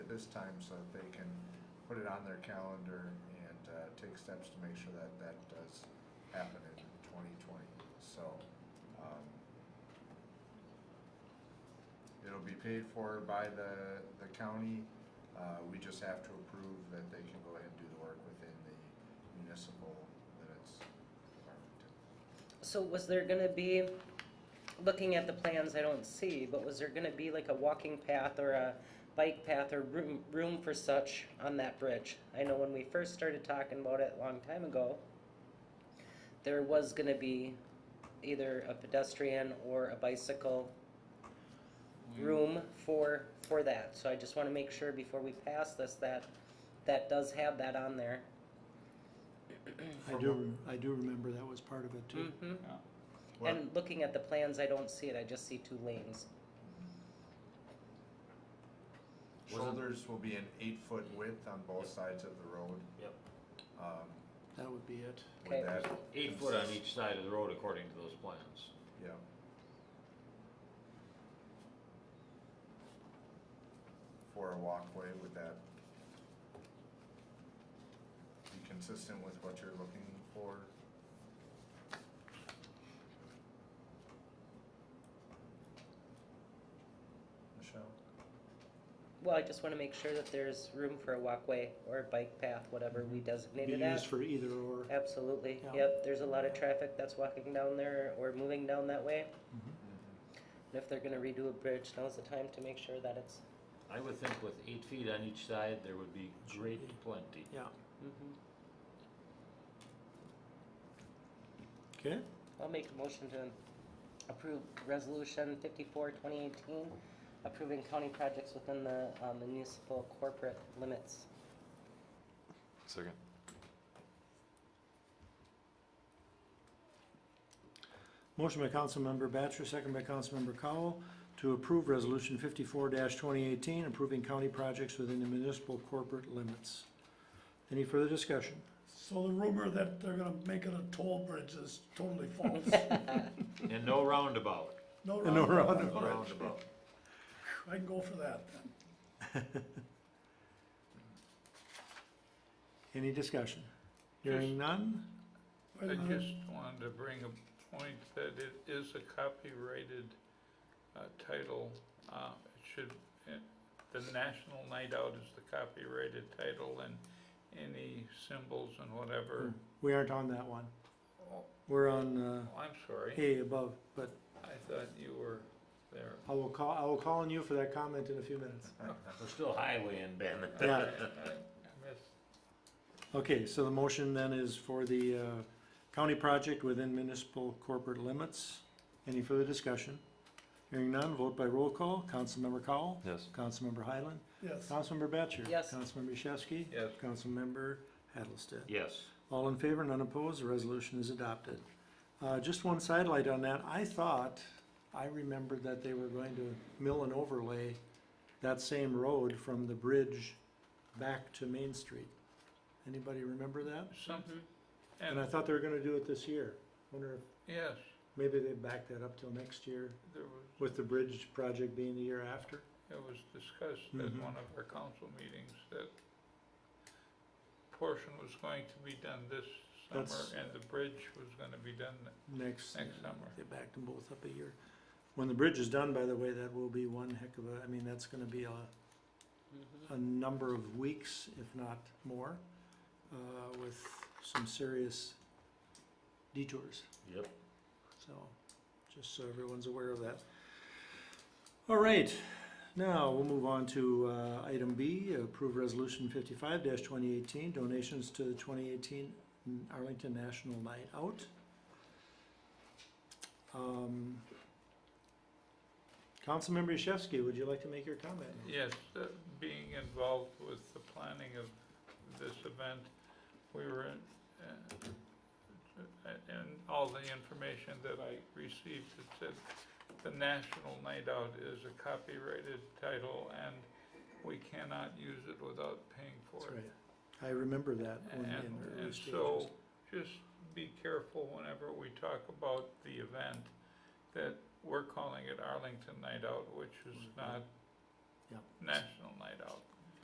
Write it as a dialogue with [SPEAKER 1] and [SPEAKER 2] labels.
[SPEAKER 1] this time so that they can put it on their calendar and uh, take steps to make sure that that does happen in twenty twenty. So, um, it'll be paid for by the, the county. Uh, we just have to approve that they can go ahead and do the work within the municipal limits.
[SPEAKER 2] So was there gonna be, looking at the plans, I don't see, but was there gonna be like a walking path or a bike path or room, room for such on that bridge? I know when we first started talking about it a long time ago, there was gonna be either a pedestrian or a bicycle room for, for that. So I just wanna make sure before we pass this, that, that does have that on there.
[SPEAKER 3] I do, rem- I do remember that was part of it too.
[SPEAKER 2] Mhm.
[SPEAKER 1] Well,
[SPEAKER 2] And looking at the plans, I don't see it, I just see two lanes.
[SPEAKER 1] Shoulders will be an eight-foot width on both sides of the road.
[SPEAKER 4] Yep.
[SPEAKER 1] Um,
[SPEAKER 3] That would be it.
[SPEAKER 1] would
[SPEAKER 2] Okay.
[SPEAKER 1] that
[SPEAKER 4] Eight foot on
[SPEAKER 1] consist-
[SPEAKER 4] each side of the road according to those plans.
[SPEAKER 1] Yeah. For a walkway, would that be consistent with what you're looking for? Michelle?
[SPEAKER 2] Well, I just wanna make sure that there's room for a walkway or a bike path, whatever we designate
[SPEAKER 3] Mm-hmm. Be
[SPEAKER 2] it as.
[SPEAKER 3] used for either or.
[SPEAKER 2] Absolutely,
[SPEAKER 3] Yeah.
[SPEAKER 2] yep, there's a lot of traffic that's walking down there or moving down that way.
[SPEAKER 3] Mm-hmm.
[SPEAKER 2] And if they're gonna redo a bridge, now's the time to make sure that it's,
[SPEAKER 4] I would think with eight feet on each side, there would be great plenty.
[SPEAKER 3] Yeah.
[SPEAKER 2] Mhm.
[SPEAKER 3] Okay.
[SPEAKER 2] I'll make a motion to approve resolution fifty-four, twenty eighteen, approving county projects within the um, municipal corporate limits.
[SPEAKER 5] Second.
[SPEAKER 3] Motion by Councilmember Batchor, second by Councilmember Cowell, to approve Resolution fifty-four twenty eighteen, approving county projects within the municipal corporate limits. Any further discussion?
[SPEAKER 6] So the rumor that they're gonna make it a toll bridge is totally false.
[SPEAKER 4] And no roundabout.
[SPEAKER 6] No
[SPEAKER 3] And no
[SPEAKER 6] roundabout.
[SPEAKER 4] No roundabout.
[SPEAKER 6] I can go for that then.
[SPEAKER 3] Any discussion? Hearing none?
[SPEAKER 6] Wait
[SPEAKER 7] I
[SPEAKER 6] a minute.
[SPEAKER 7] just wanted to bring a point that it is a copyrighted uh, title. Uh, It should, it- the National Night Out is the copyrighted title and any symbols and whatever.
[SPEAKER 3] We aren't on that one.
[SPEAKER 7] Oh,
[SPEAKER 3] We're on, uh,
[SPEAKER 7] I'm sorry,
[SPEAKER 3] A above, but
[SPEAKER 7] I thought you were there.
[SPEAKER 3] I will call, I will call on you for that comment in a few minutes.
[SPEAKER 4] We're still highway in Bandon.
[SPEAKER 3] Yeah.
[SPEAKER 7] I- I missed
[SPEAKER 3] Okay, so the motion then is for the uh, county project within municipal corporate limits. Any further discussion? Hearing none, vote by roll call. Councilmember Cowell?
[SPEAKER 5] Yes.
[SPEAKER 3] Councilmember Highland?
[SPEAKER 6] Yes,
[SPEAKER 3] Councilmember Batchor?
[SPEAKER 2] Yes.
[SPEAKER 3] Councilmember Yashewski?
[SPEAKER 7] Yes.
[SPEAKER 3] Councilmember Hattlestead?
[SPEAKER 4] Yes.
[SPEAKER 3] All in favor, none opposed, the resolution is adopted. Uh, Just one sidelight on that, I thought, I remembered that they were going to mill and overlay that same road from the bridge back to Main Street. Anybody remember that?
[SPEAKER 7] something.
[SPEAKER 3] Mm-hmm. And I
[SPEAKER 7] And,
[SPEAKER 3] thought they were gonna do it this year. Wonder if
[SPEAKER 7] yes,
[SPEAKER 3] maybe they back that up till next year
[SPEAKER 7] there was,
[SPEAKER 3] with the bridge project being the year after?
[SPEAKER 7] it was discussed at
[SPEAKER 3] Mhm.
[SPEAKER 7] one of our council meetings that portion was going to be done this
[SPEAKER 3] That's-
[SPEAKER 7] summer and the bridge was gonna be done
[SPEAKER 3] Next,
[SPEAKER 7] next summer.
[SPEAKER 3] they backed them both up a year. When the bridge is done, by the way, that will be one heck of a, I mean, that's gonna be a a number of weeks, if not more, uh, with some serious detours.
[SPEAKER 4] Yep.
[SPEAKER 3] So, just so everyone's aware of that. All right, now we'll move on to uh, item B, approve resolution fifty-five twenty eighteen, donations to the twenty eighteen Arlington National Night Out. Um, Councilmember Yashewski, would you like to make your comment?
[SPEAKER 7] Yes, uh, being involved with the planning of this event, we were in, uh, and all the information that I received, it said the National Night Out is a copyrighted title and we cannot use it without paying
[SPEAKER 3] That's
[SPEAKER 7] for it.
[SPEAKER 3] right. I remember that when in
[SPEAKER 7] And,
[SPEAKER 3] the early
[SPEAKER 7] and
[SPEAKER 3] stages.
[SPEAKER 7] so, just be careful whenever we talk about the event, that
[SPEAKER 3] Mm-hmm.
[SPEAKER 7] we're calling it Arlington Night Out, which is not
[SPEAKER 3] Yeah.
[SPEAKER 7] National Night Out.